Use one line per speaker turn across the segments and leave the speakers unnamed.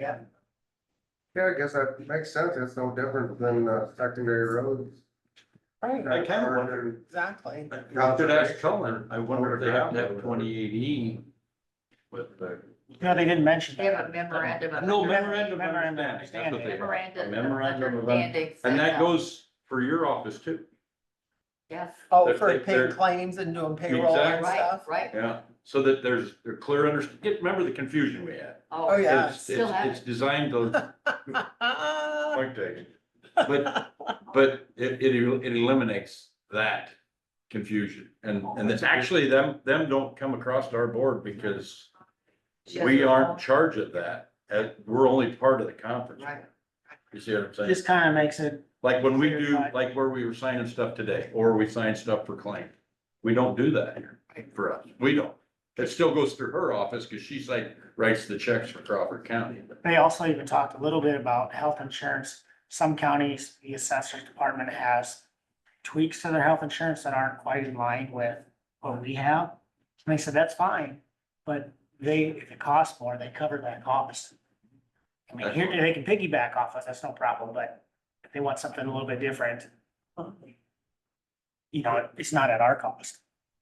Yeah.
Yeah, I guess that makes sense. It's no different than uh, secondary roads.
I kind of wondered, exactly.
I should ask Cullen, I wonder if they have that twenty-eight E with the.
No, they didn't mention
They have a
that.
memorandum of.
No memorandum of
Memorandum of
understanding. That's what they have.
Memorandum. of
Memorandum of understanding.
understanding.
And that
set up.
goes for your office too.
Yes,
Oh,
They're-
for
they're-
paying claims and doing payroll and
Exactly.
right,
stuff.
right.
Yeah. So that there's, they're clear under, get, remember the confusion we had.
Oh, yeah.
It's-
still
It's,
have
it's
it.
designed to,
Ah,
point taken. But, but it, it, el- it eliminates that confusion. And, and it's actually them, them don't come across to our board because
She
we
doesn't
aren't in
know.
charge of that. Uh, we're only part of the conference.
Right.
You see what I'm saying?
This kind of makes it,
Like when we do,
Verified.
like where we were signing stuff today, or we sign stuff for claim, we don't do that here for us, we don't. It still goes through her office, cause she's like, writes the checks for Crawford County.
they also even talked a little bit about health insurance. Some counties, the assessor's department has tweaks to their health insurance that aren't quite in line with what we have. And they said, that's fine, but they, if it costs more, they cover that cost. I mean, here, they can piggyback off us, that's no problem, but if they want something a little bit different, you know, it's not at our cost.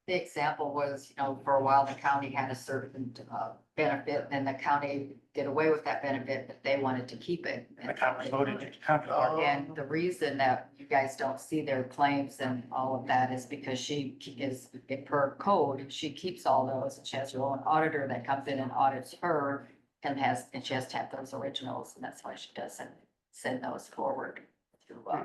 The example was, you know, for a while, the county had a certain uh, benefit, and the county did away with that benefit, but they wanted to keep it.
The Congress voted to cover our
And the reason that you guys don't see their claims and all of that is because she ke- is, if per code, she keeps all those. and She has her own auditor that comes in and audits her and has, and she has to have those originals, and that's why she doesn't send those forward. to, uh,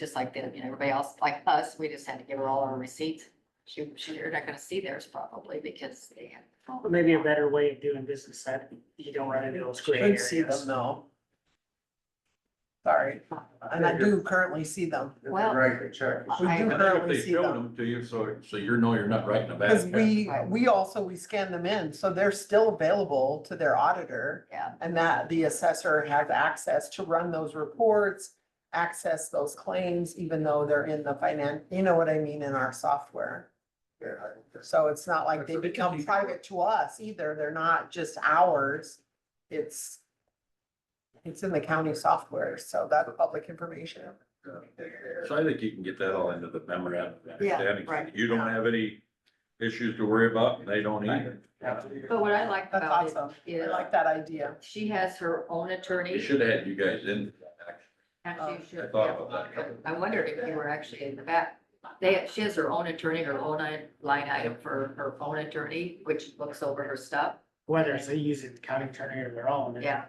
Just like the, you know, everybody else, like us, we just had to give her all our receipts. She, she, you're not gonna see theirs probably because they have.
But Maybe a better way of doing business that you don't run into those gray
Should see them
areas.
though. Sorry, and I do currently see them.
If they
Well-
Write the check.
We
I-
do
And then if
currently
they
see
showed
them.
them to you, so, so you know you're not writing a bad
Cause
check.
we, we also, we scan them in, so they're still available to their auditor.
Yeah.
And that the assessor has access to run those reports, access those claims, even though they're in the finance, you know what I mean, in our software.
Yeah, I-
So it's not like they become private to us either, they're not just ours, it's. It's in the county software, so that's public information.
So I think you can get that all into the memorandum. of understanding.
right.
You don't have any issues to worry about, and they don't either.
But what I like
That's
about it
awesome, I
is
like that idea.
she has her own
You
attorney.
should have had you guys in.
Actually,
Oh.
she-
I thought about
yeah.
that.
I wondered if you were actually in the back. They, she has her own attorney, her own i- line item for her own attorney, which looks over her stuff.
Whether it's they use it, county attorney or their own.
Yeah,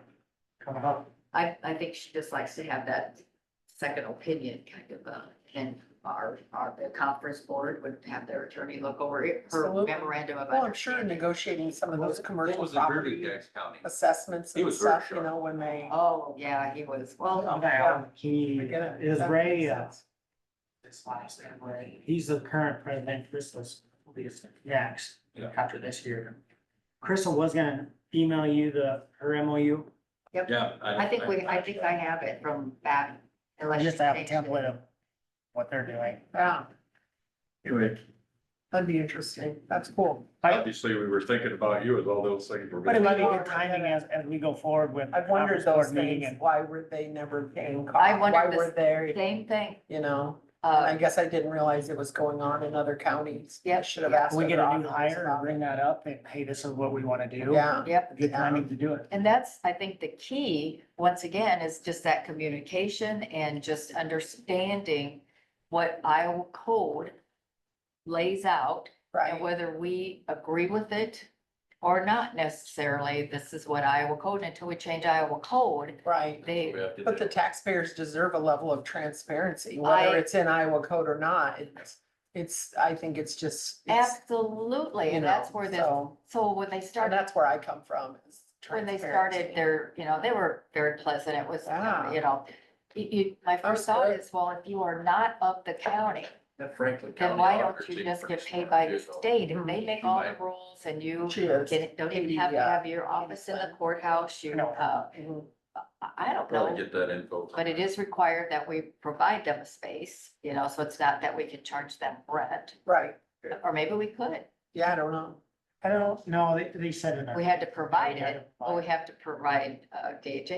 Come up.
I, I think she just likes to have that second opinion kind of, uh, and our, our, the conference board would have their attorney look over it, her
Absolutely.
memorandum of
Well, I'm sure
understanding.
negotiating some of those commercial property
County?
assessments
He
and
was very
stuff, you
sharp.
know, when they.
Oh, yeah, he was, well,
Now, he
I get it.
is
That
Ray,
makes
uh,
sense.
this last name, Ray. he's the current president, Chris was, will be his next
Yeah.
after this year. Crystal was gonna email you the, her MOU.
Yeah.
I think we, I think I have it from back.
I
unless
just
she
have a
changed it.
template of what they're doing.
Yeah,
Anyway,
That'd be interesting, that's cool.
obviously, we were thinking about you as all those things were.
But
It
if
might be
you
good timing as, as we go forward with.
I've wondered
the conference
those
board meeting
things,
and-
why were they never paying
I
costs,
wondered
why
the
were they,
same thing.
you know? And I
Uh,
guess I didn't realize it was going on in other counties. I
Yeah.
Should have asked.
We get
other
a new
auditors
hire and
about
bring
it.
that up and, hey, this is what we wanna do.
Yeah,
yep.
Good timing to do it.
And that's, I think, the key, once again, is just that communication and just understanding what Iowa code lays out and
right,
whether we agree with it or not necessarily. This is what Iowa code, until we change Iowa code,
right.
they,
But the taxpayers deserve a level of transparency, whether
I-
it's in Iowa code or not, it's, it's, I think it's just. it's,
absolutely,
you
and
know,
that's where this,
so-
so when they
And
started,
that's where I come from. is
when they
transparency.
started their, you know, they were very pleasant. It was,
Yeah.
you know, you, you, my
That's
first thought
good.
is, well, if you are not of the county,
Franklin
Then why don't you just get paid by the state and they make all the
Right.
rules and you
Cheers.
get, don't even
Maybe,
have to
uh,
have your office in the courthouse, you,
No.
uh, I- I don't
Probably
know.
get that info.
But it is required that we provide them a space, you know, so it's not that we can charge them rent,
Right,
or maybe we could.
yeah, I don't know.
I don't know, they, they said in our.
We had to provide
We had to
it, but we
provide.
have to provide, uh, gauge